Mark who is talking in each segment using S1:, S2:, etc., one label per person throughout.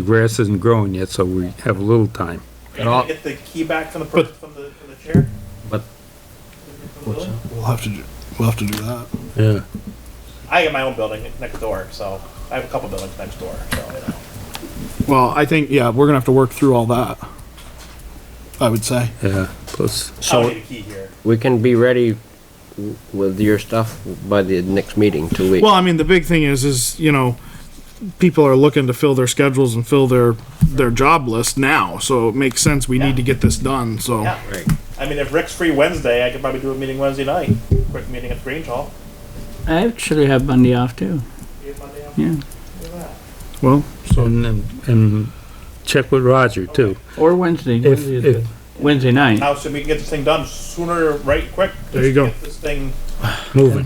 S1: The grass isn't growing yet, so we have a little time.
S2: Can I get the key back from the, per- from the, from the chair?
S1: But-
S2: From the building?
S3: We'll have to do, we'll have to do that.
S1: Yeah.
S2: I got my own building next door, so I have a couple buildings next door, so, you know.
S3: Well, I think, yeah, we're gonna have to work through all that. I would say.
S1: Yeah, plus,
S2: I don't
S4: So
S2: need a key here.
S4: we can be ready w- with your stuff by the next meeting, two weeks.
S5: Well, I mean, the big thing is, is, you know, people are looking to fill their schedules and fill their, their job list now, so it makes sense, we need to get this done, so.
S2: Yeah.
S4: Right.
S2: I mean, if Rick's free Wednesday, I could probably do a meeting Wednesday night, quick meeting at Grange Hall.
S6: I actually have Monday off too.
S2: You have Monday off?
S6: Yeah.
S2: Look at that.
S5: Well,
S1: and, and- and check with Roger too.
S6: Or Wednesday.
S1: If,
S6: Wednesday is
S1: if,
S6: good. Wednesday night.
S2: Now, so we can get this thing done sooner, right, quick.
S5: There
S2: just
S5: you go.
S2: Get this thing
S1: moving.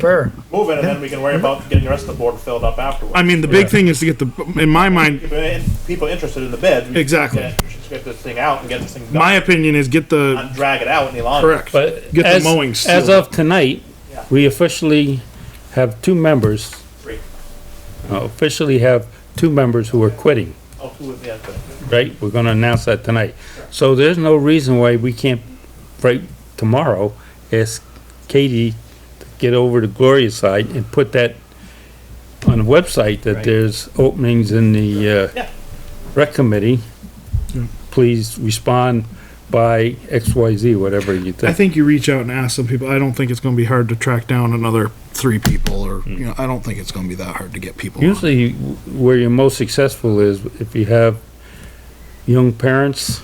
S2: moving, and then we can worry about getting the rest of the board filled up afterwards.
S5: I mean, the big thing is to get the, in my mind,
S2: If there are People interested in the bid. we should
S5: Exactly.
S2: get- we should get this thing out and get this thing
S5: my
S2: done,
S5: opinion is get the,
S2: not drag it out any longer.
S5: correct,
S1: But
S5: Get the
S1: as,
S5: mowing
S1: as
S5: still.
S1: of tonight,
S2: Yeah.
S1: we officially have two members,
S2: Three.
S1: uh, officially have two members who are quitting,
S2: Oh, two of the other.
S1: right? We're gonna announce that tonight. So there's no reason why we can't, right, tomorrow, ask Katie to get over to Gloria's side and put that on the website that there's openings in the, uh,
S2: Yeah.
S1: rec committee. Please respond by X, Y, Z, whatever you
S5: I
S1: think.
S5: think you reach out and ask some people, I don't think it's gonna be hard to track down another three people, or, you know, I don't think it's gonna be that hard to get people. on.
S1: Usually where you're most successful is if you have young parents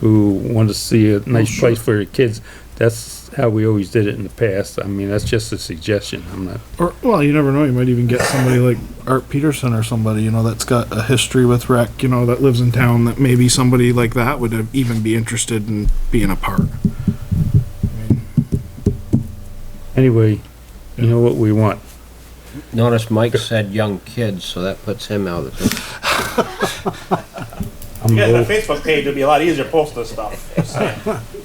S1: who want to see
S2: Oh,
S1: a nice place for their kids. That's how we always did it in the past. I mean, that's just a suggestion. I'm not,
S5: Or, well, you never know, you might even get somebody like Art Peterson or somebody, you know, that's got a history with rec, you know, that lives in town, that maybe somebody like that would have even be interested in being a part.
S1: anyway, you know what we want.
S4: Notice Mike said young kids, so that puts him out of the,
S1: I'm
S2: You guys
S1: an old,
S2: have a Facebook page, it'd be a lot easier to post this stuff. Just saying.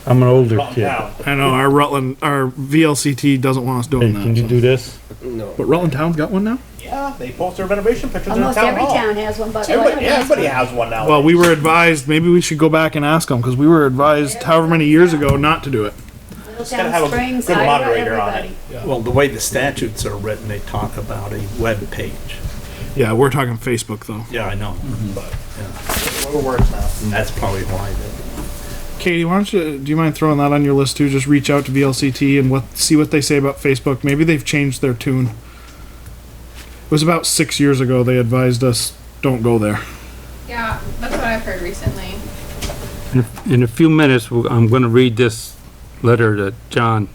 S1: I'm an older
S2: Calm
S1: kid.
S2: down.
S5: I know our Rutland, our VLCT doesn't want us doing
S1: Hey, Can you
S5: that.
S1: do this?
S4: no.
S5: But Rutland Town's got one now?
S2: Yeah, they post their renovation pictures in the
S7: Almost
S2: town
S7: every
S2: hall.
S7: town has one, but.
S2: Everybody, yeah, everybody has one now.
S5: Well, we were advised, maybe we should go back and ask them, because we were advised however many years ago not to do it.
S2: gotta have a
S7: Middletown Springs,
S2: good
S7: Iowa,
S2: moderator on it.
S7: everybody.
S8: Well, the way the statutes are written, they talk about a web page.
S5: Yeah, we're talking Facebook though.
S8: Yeah, I know,
S2: Mm-hmm.
S8: but
S2: Whatever works now.
S8: that's probably why. they-
S5: Katie, why don't you, do you mind throwing that on your list too? Just reach out to VLCT and what, see what they say about Facebook. Maybe they've changed their tune. It was about six years ago they advised us don't go there.
S9: Yeah, that's what I've heard recently.
S1: In a few minutes, we'll- I'm gonna read this letter to John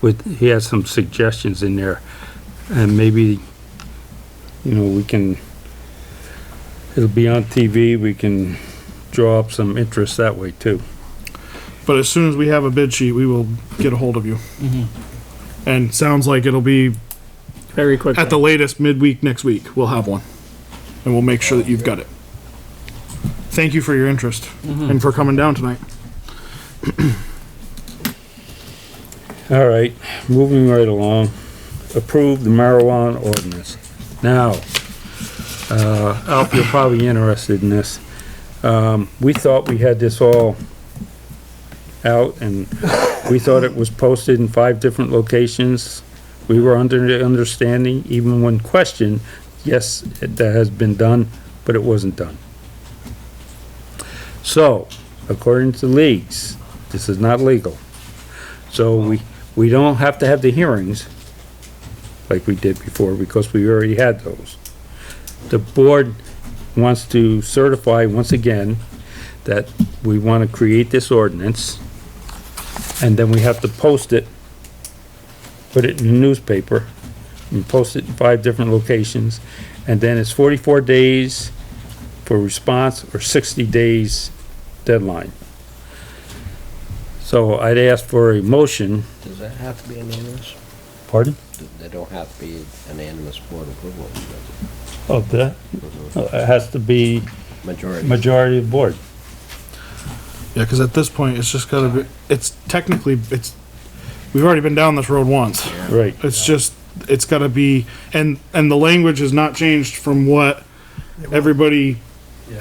S1: with, he has some suggestions in there. And maybe, you know, we can, it'll be on TV, we can draw up some interest that way too.
S5: But as soon as we have a bid sheet, we will get a hold of you. And sounds like it'll be
S6: Mm-hmm. Very quick.
S5: at the latest midweek next week. We'll have one, and we'll make sure that you've got it. Thank you for your interest
S6: Mm-hmm.
S5: and for coming down tonight.
S1: All right, moving right along. Approve the marijuana ordinance. Now, uh, Alf, you're probably interested in this. Um, we thought we had this all out and we thought it was posted in five different locations. We were under the understanding, even when questioned, yes, it- that has been done, but it wasn't done. So, according to leagues, this is not legal. So we, we don't have to have the hearings like we did before because we already had those. The board wants to certify once again that we want to create this ordinance and then we have to post it, put it in the newspaper and post it in five different locations. And then it's forty-four days for response or sixty days deadline. So I'd ask for a motion.
S4: Does that have to be unanimous?
S1: Pardon?
S4: They don't have to be unanimous board approval, does
S1: Of that? It has to be
S4: it? majority.
S1: majority of board.
S5: Yeah, because at this point, it's just gotta be. It's technically it's. We've already been down this road once.
S1: Right.
S5: It's just it's gotta be and and the language has not changed from what everybody